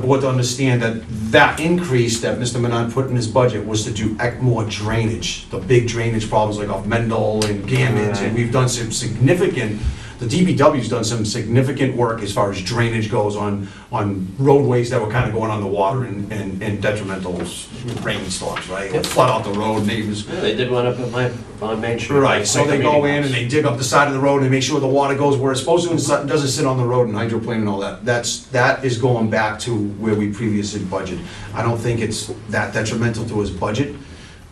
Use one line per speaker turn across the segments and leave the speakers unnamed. the board to understand that that increase that Mr. Manon put in his budget was to do ec- more drainage, the big drainage problems like off Mendel and Gammons, and we've done some significant, the DBW's done some significant work as far as drainage goes on, on roadways that were kind of going on the water and- and and detrimental s- rainstorms, right? Or Flood out the road, neighbors
Yeah, they did one up at my, on Main Street.
Right, so they go in and they dig up the side of the road and make sure the water goes where it's supposed to and so- doesn't sit on the road and hydroplane and all that. That's, that is going back to where we previously budgeted. I don't think it's that detrimental to his budget.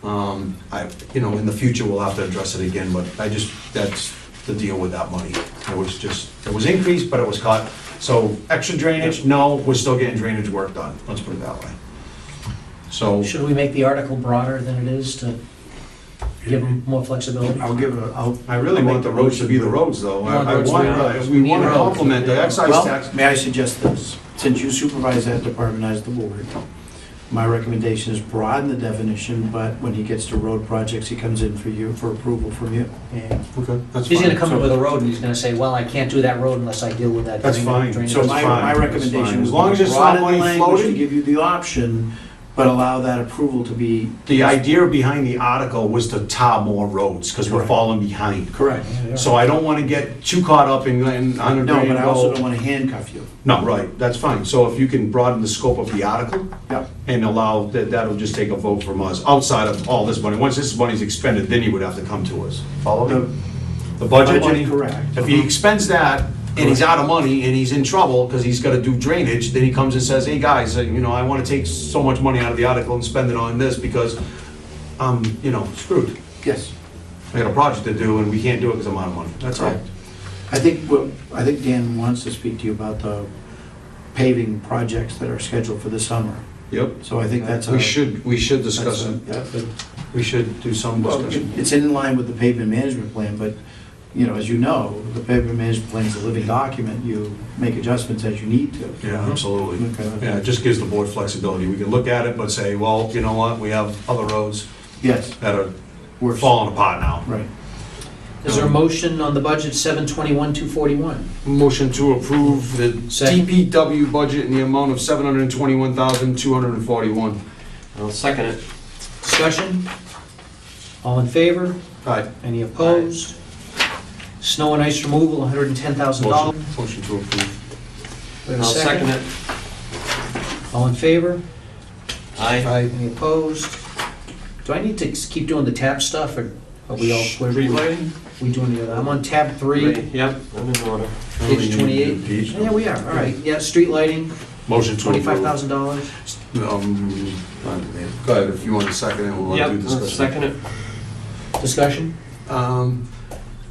Um, I, you know, in the future, we'll have to address it again, but I just, that's the deal with that money. It was just, it was increased, but it was cut. So extra drainage, no, we're still getting drainage work done, let's put it that way. So,
Should we make the article broader than it is to give them more flexibility?
I'll give a, I'll.
I really want the roads to be the roads, though.
You want
I I
roads to
want,
be
uh,
roads.
we want to
Need roads.
complement the excise
Well,
tax.
may I suggest this? Since you supervise that department as the board, my recommendation is broaden the definition, but when he gets to road projects, he comes in for you, for approval from you. And
Okay, that's
He's gonna
fine.
come up with a road and he's gonna say, well, I can't do that road unless I deal with that.
That's
drainage-
fine.
So
drainage."
my,
That's fine,
my
that's fine.
recommendation
As
is
long as it's not
broaden
money
language to
floating.
give you the option, but allow that approval to be.
The idea behind the article was to tar more roads, because we're
Correct.
falling behind.
Correct.
So I don't want to get too caught up in, in, on a
No, but I also don't
go.
want to handcuff you.
No, right, that's fine. So if you can broaden the scope of the article
Yep.
and allow, that, that'll just take a vote from us, outside of all this money. Once this money's expended, then you would have to come to us. Follow me?
The
The budget
Budget,
money?
correct.
If he expends that, and he's out of money, and he's in trouble, because he's gotta do drainage, then he comes and says, hey, guys, uh, you know, I wanna take so much money out of the article and spend it on this, because I'm, you know, screwed.
Yes.
I got a project to do, and we can't do it because I'm out of money. That's all.
Correct. I think, what- I think Dan wants to speak to you about the paving projects that are scheduled for the summer.
Yep.
So I think that's.
We
a-
should, we should
that's a-
discuss it.
yeah, but-
We should do some
well,
discussion.
It's in line with the pavement management plan, but, you know, as you know, the pavement management plan is a living document. You make adjustments as you need to.
Yeah, absolutely.
Okay.
Yeah, it just gives the board flexibility. We can look at it, but say, well, you know what, we have other roads
Yes,
that are
we're.
falling apart now.
Right.
Is there a motion on the budget, seven twenty-one, two forty-one?
Motion to approve the
Second.
DPW budget in the amount of seven hundred and twenty-one thousand, two hundred and forty-one.
I'll second it.
Discussion? All in favor?
Aye.
Any opposed? Snow and ice removal, hundred and ten thousand dollars.
Motion motion to approve.
I'll second it.
All in favor?
Aye.
Any opposed? Do I need to keep doing the tab stuff, or are we all, we're-
Street lighting?
we doing the other? I'm on tab three,
Yep, I'm in order.
page twenty-eight.
Page.
Yeah, we are, all right, yeah, street lighting,
Motion to approve.
twenty-five thousand dollars.
Um, go ahead, if you want to second it, we'll
Yep,
do
I'll
discussion.
second it.
Discussion?
Um,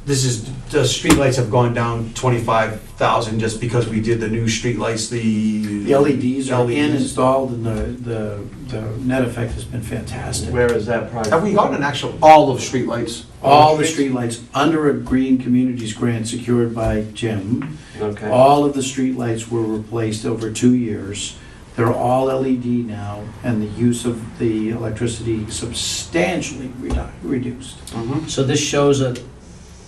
this is, the streetlights have gone down twenty-five thousand just because we did the new streetlights, the. E
The
E
LEDs are in
LEDs.
installed and the, the, the net effect has been fantastic.
Where is that project?
Have we gotten an actual, all of streetlights?
All the streetlights under a Green Communities grant secured by Jim.
Okay.
All of the streetlights were replaced over two years. They're all LED now, and the use of the electricity substantially redu- reduced.
Mhm.
So this shows a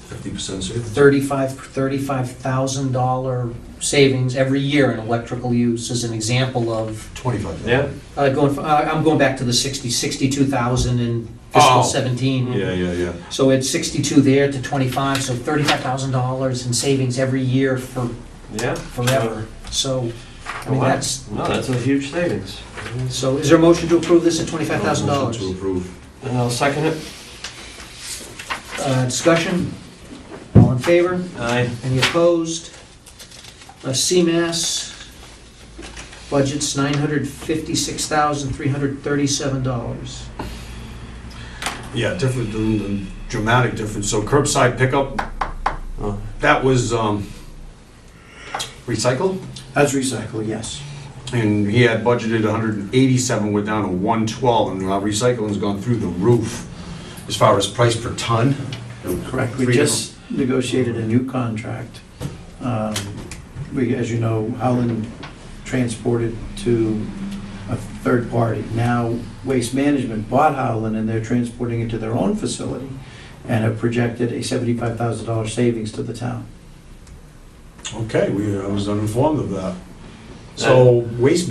Fifty percent savings.
thirty-five, thirty-five thousand dollar savings every year in electrical use as an example of,
Twenty-five.
Yeah,
uh, going, f- uh, I'm going back to the sixty, sixty-two thousand in fiscal
Oh.
seventeen.
Yeah, yeah, yeah.
So it's 62 there to 25, so $35,000 in savings every year for
yeah.
forever. So, I mean,
Wow.
that's,
No, that's a huge savings.
so is there a motion to approve this at
Motion To
$25,000?
approve.
And I'll second it.
Uh, Discussion? All in favor?
Aye.
Any opposed? Uh, CMAS, budget's $956,337.
Yeah, different, than the dramatic difference. So curbside pickup,
Oh.
that was, um, recycled?
That's recycle, yes.
And he had budgeted 187, we're down to 112, and our recycling's gone through the roof as far as price per ton.
Correct. We
Three
just negotiated a new contract. Um, We, as you know, Howland transported to a third party. Now Waste Management bought Howland and they're transporting it to their own facility and have projected a $75,000 savings to the town.
Uh, Okay, we, I was uninformed of that. So waste